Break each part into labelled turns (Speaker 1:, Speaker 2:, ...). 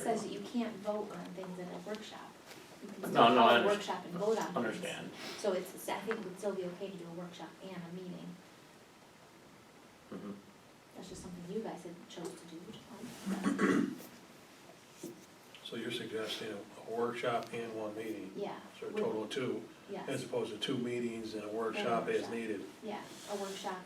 Speaker 1: says that you can't vote on things at a workshop. You can
Speaker 2: No,
Speaker 1: still
Speaker 2: no,
Speaker 1: call
Speaker 2: I
Speaker 1: a
Speaker 2: under-
Speaker 1: workshop and vote on things.
Speaker 2: understand.
Speaker 1: So it's, it's- I think it would still be okay to do a workshop and a meeting.
Speaker 2: Mhm.
Speaker 1: That's just something you guys had chose to do, which is fine.
Speaker 3: So you're suggesting a workshop and one meeting,
Speaker 1: Yeah,
Speaker 3: so a total of two,
Speaker 1: yes,
Speaker 3: as opposed to two meetings and a workshop as
Speaker 1: workshop.
Speaker 3: needed.
Speaker 1: yeah, a workshop,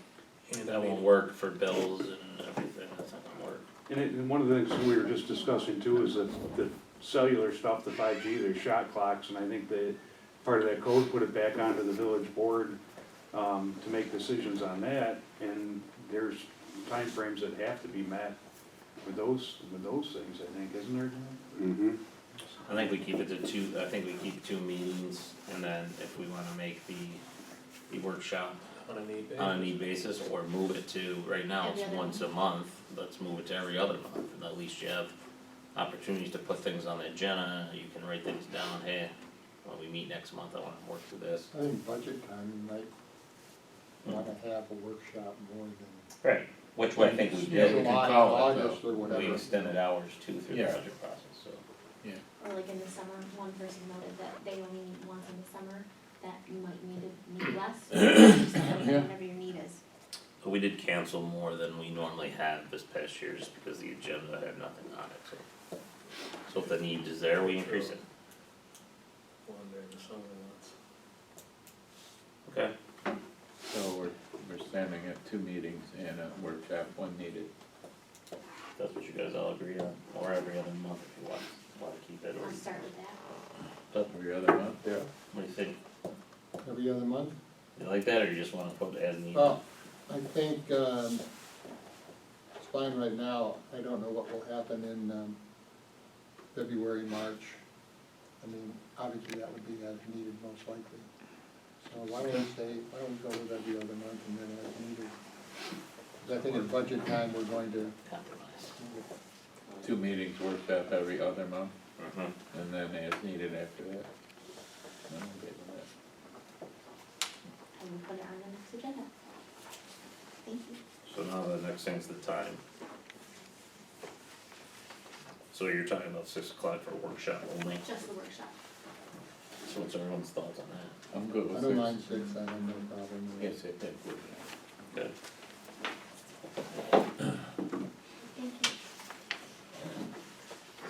Speaker 3: and a
Speaker 2: That won't
Speaker 3: meeting.
Speaker 2: work for bills and everything, that's not gonna work.
Speaker 4: And it, and one of the things we were just discussing too is that the cellular stuff, the five G, there's shot clocks, and I think that part of that code put it back onto the village board, um, to make decisions on that, and there's timeframes that have to be met with those, with those things, I think, isn't there?
Speaker 5: Mm-hmm.
Speaker 2: I think we keep it to two, I think we keep two meetings, and then if we wanna make the, the workshop
Speaker 3: On a need
Speaker 2: on a
Speaker 3: basis.
Speaker 2: need basis, or move it to, right now, it's
Speaker 1: Every other
Speaker 2: once a month, let's move it to every other month, and at least you have opportunities to put things on the agenda, you can write things down, hey, when we meet next month, I wanna work through this.
Speaker 6: I think budget time, you might wanna have a workshop more than.
Speaker 2: Right. Which way Hmm. I think we did, we can
Speaker 6: July,
Speaker 2: call it,
Speaker 6: August or
Speaker 2: though, we
Speaker 6: whatever.
Speaker 2: extended hours too through the
Speaker 5: Yeah.
Speaker 2: budget process, so.
Speaker 1: or like in the summer, one person noted that they only meet once in the summer, that you might need to meet less. or just Whenever your need is.
Speaker 2: But we did cancel more than we normally have this past year, just because the agenda had nothing on it, so. So if the need is there, we increase it,
Speaker 3: One during the summer months.
Speaker 2: okay?
Speaker 5: So we're, we're standing at two meetings and a workshop, one needed.
Speaker 2: That's what you guys all agree on, or every other month if you want, wanna keep it, or
Speaker 1: I'll start with that.
Speaker 5: Every other month? Yeah.
Speaker 2: what do you think?
Speaker 6: Every other month?
Speaker 2: You like that, or you just wanna put it as needed?
Speaker 6: Well, I think, um, it's fine right now, I don't know what will happen in, um, February, March. I mean, obviously that would be as needed most likely. So why don't we say, why don't we go with every other month and then as needed? 'Cause I think at budget time, we're going to,
Speaker 2: Compromise.
Speaker 5: Two meetings, workshop every other month,
Speaker 2: Mm-hmm.
Speaker 5: and then as needed after that. I'm okay with that.
Speaker 1: I will put it on the next agenda. Thank you.
Speaker 2: So now the next thing's the time. So you're talking about six o'clock for workshop only,
Speaker 1: Just the workshop.
Speaker 2: so what's everyone's thoughts on that?
Speaker 5: I'm good
Speaker 6: I
Speaker 5: with
Speaker 6: don't
Speaker 5: six.
Speaker 6: mind six, I have no problem with it.
Speaker 5: Yes, it did.
Speaker 2: Good.
Speaker 1: Thank you.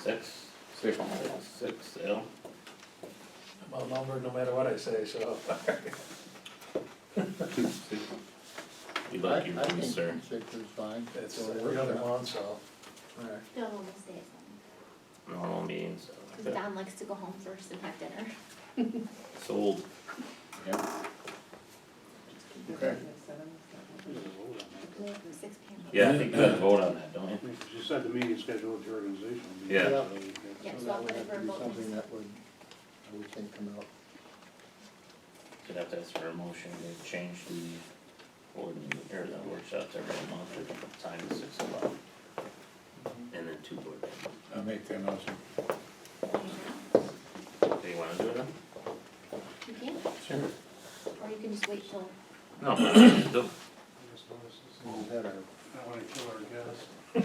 Speaker 2: Six,
Speaker 5: Six.
Speaker 2: six, six, Al?
Speaker 3: I'm outnumbered no matter what I say, so.
Speaker 2: We
Speaker 6: I, I
Speaker 2: like your
Speaker 6: think
Speaker 2: voice, sir.
Speaker 6: six is fine.
Speaker 3: It's
Speaker 6: So
Speaker 3: every other
Speaker 6: workshop.
Speaker 3: month, so. Alright.
Speaker 1: Bill will stay at home,
Speaker 2: Normal meetings.
Speaker 1: because Don likes to go home first and have dinner.
Speaker 2: Sold.
Speaker 5: Yep.
Speaker 4: Okay.
Speaker 1: Six P M.
Speaker 2: Yeah, I think you gotta vote on that, don't you?
Speaker 4: You said the meeting schedule at your organization.
Speaker 2: Yeah.
Speaker 6: So
Speaker 1: Yeah, so I'll
Speaker 6: that would
Speaker 1: put it
Speaker 6: have
Speaker 1: for
Speaker 6: to be
Speaker 1: both
Speaker 6: something
Speaker 1: next.
Speaker 6: that would, I would think come out.
Speaker 2: Could have to ask for a motion to change the ordinance, or the workshops every month, or time to six o'clock. And then two board members.
Speaker 5: I'll make that motion.
Speaker 2: Do you wanna do it now?
Speaker 1: You can,
Speaker 2: Sure.
Speaker 1: or you can just wait till,
Speaker 2: No, do,
Speaker 6: And we've had our
Speaker 4: I wanna kill our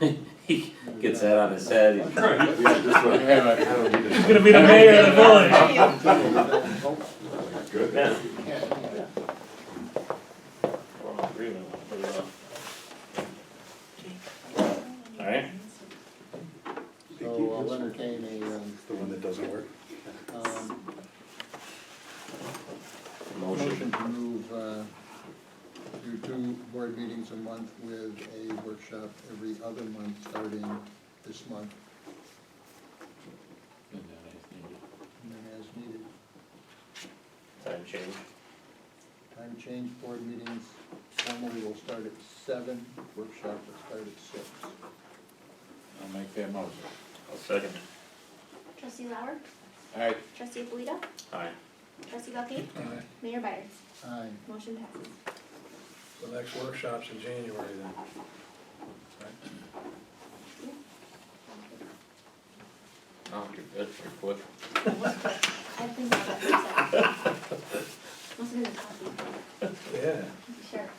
Speaker 4: guests.
Speaker 2: he gets that on his head. He's
Speaker 5: Yeah, just what I have, I don't need it.
Speaker 2: gonna be the mayor of the village.
Speaker 5: Good.
Speaker 2: Yeah.
Speaker 6: Yeah.
Speaker 2: We're all agreeing, we'll put it off. Alright,
Speaker 6: So I'll entertain a, um,
Speaker 4: The one that doesn't work?
Speaker 6: um, motion
Speaker 2: motion,
Speaker 6: to move, uh, do two board meetings a month with a workshop every other month starting this month
Speaker 5: And then as needed.
Speaker 6: and then as needed.
Speaker 2: time change.
Speaker 6: Time change, board meetings normally will start at seven, workshop will start at six.
Speaker 5: I'll make that motion.
Speaker 2: I'll second
Speaker 1: trustee Lauer,
Speaker 5: All right,
Speaker 1: trustee Alito,
Speaker 2: it. Alright.
Speaker 1: trustee Buckley,
Speaker 3: Alright,
Speaker 1: mayor Byers,
Speaker 6: Aye.
Speaker 1: motion passes.
Speaker 3: the next workshop's in January then. Right?
Speaker 2: Oh, you're good, you're quick.
Speaker 1: I think I'll let you say. Must have been the coffee,
Speaker 3: Yeah,
Speaker 1: sure.